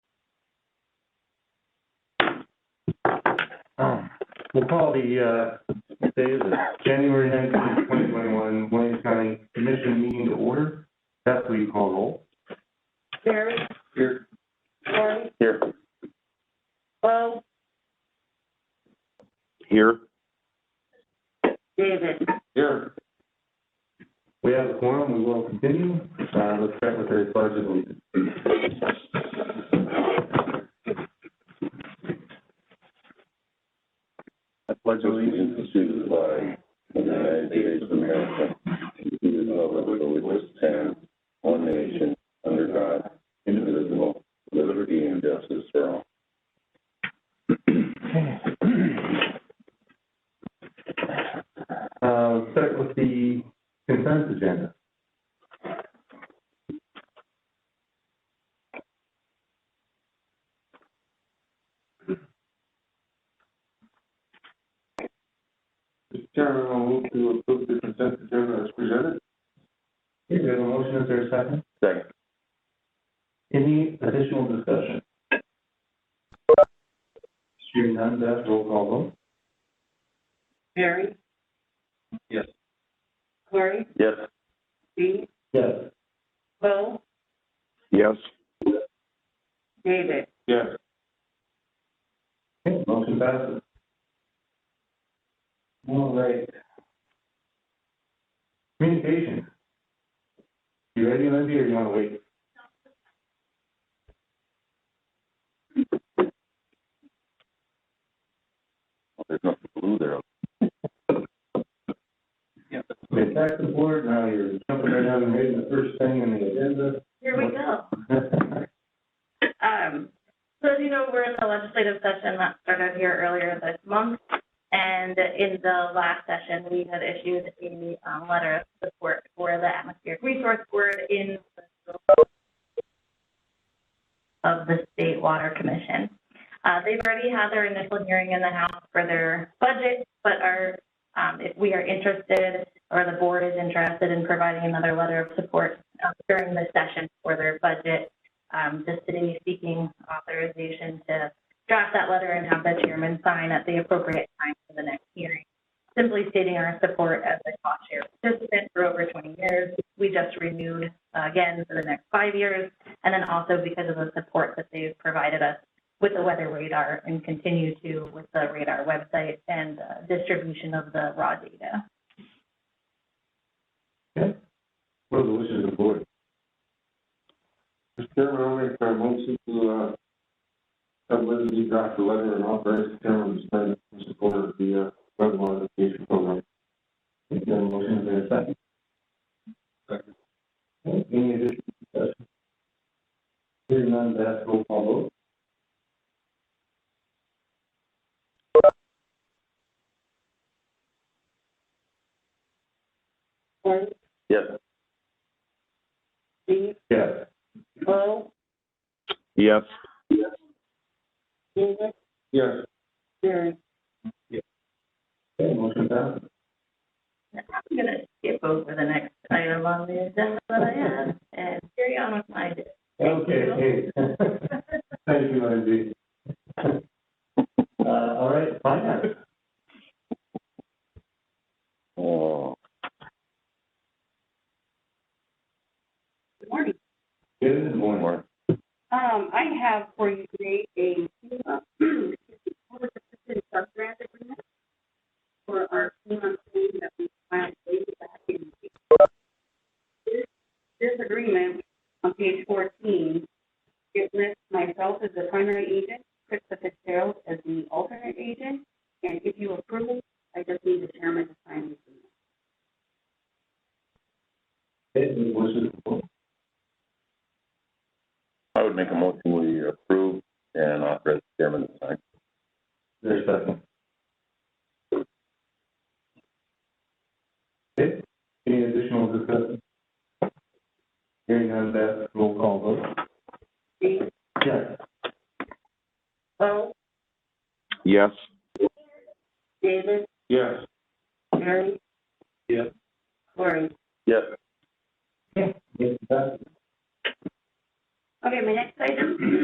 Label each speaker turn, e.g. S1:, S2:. S1: Oh. We'll call the, uh, what day is it? January nineteenth, twenty twenty-one, Wayne County Commission meeting to order. That's what you call roll.
S2: Barry,
S1: Here.
S2: Barry,
S1: Here.
S2: Bo,
S3: Here.
S2: David.
S1: Here. We have a quorum, we will continue. Uh, let's start with the pledge of allegiance.
S3: I pledge allegiance to the flag of the United States of America, and to the republic for which it stands, one nation, under God, indivisible, with liberty and justice for all.
S1: Uh, start with the consent agenda.
S4: Mr. Chairman, I'll move to approve the consent agenda as presented.
S1: Is there a motion, is there a second?
S3: Second.
S1: Any additional discussion? Hearing none, Beth, roll call vote.
S2: Barry?
S1: Yes.
S2: Cory,
S3: Yes.
S2: Steve,
S1: Yes.
S2: Bo,
S3: Yes.
S2: David.
S4: Yes.
S1: Okay, motion passes. All right. Communication. You ready, Lindsay, or you wanna wait?
S3: There's nothing blue there.
S1: Okay, back to the board, now you're jumping right down and reading the first thing in the agenda.
S5: Here we go. Um, so as you know, we're in the legislative session that started here earlier this month. And in the last session, we had issued a, um, letter of support for the Atmospheric Resource Board in the of the State Water Commission. Uh, they've already had their initial hearing in the House for their budget, but are, um, if we are interested or the board is interested in providing another letter of support uh, during the session for their budget, um, the city seeking authorization to draft that letter and have the chairman sign at the appropriate time for the next hearing. Simply stating our support as a cost share participant for over 20 years. We just renewed uh, again for the next five years. And then also because of the support that they've provided us with the weather radar and continue to with the radar website and uh, distribution of the raw data.
S1: What are the wishes of the board?
S4: Mr. Chairman, I'll make a motion to, uh, have Lindsay draft a letter and authorize the chairman to sign in support of the, uh, flood modification program.
S1: Is there a motion, is there a second?
S4: Second.
S1: Okay, Any additional discussion? Hearing none, Beth, roll call vote.
S2: Barry,
S3: Yes.
S2: Steve,
S1: Yes.
S2: Bo,
S3: Yes.
S2: David,
S4: Yes.
S2: Barry.
S1: Okay, motion passes.
S5: I'm gonna skip over the next item on the agenda that I have and carry on with my day. Thank
S1: Okay, hey. Thank you, Lindsay. Uh, all right, finance.
S3: Oh.
S2: Good morning.
S1: Good morning.
S2: Um, I have for you today a, uh, public assistance subgrant agreement for our FEMA claim that we filed way back in. This, this agreement on page fourteen, it lists myself as the primary agent, Krista Fitzgerald as the alternate agent, and if you approve, I just need the chairman to sign this. agreement.
S1: It was just-
S3: I would make a motion we approve and authorize the chairman to sign.
S1: There's a second. Okay, any additional discussion? Hearing none, that roll call vote.
S2: Steve,
S1: Yes.
S2: Bo,
S3: Yes.
S2: David,
S4: Yes.
S2: Mary.
S1: Yes.
S2: Lori.
S3: Yes.
S1: Yes, that
S2: Okay, my next item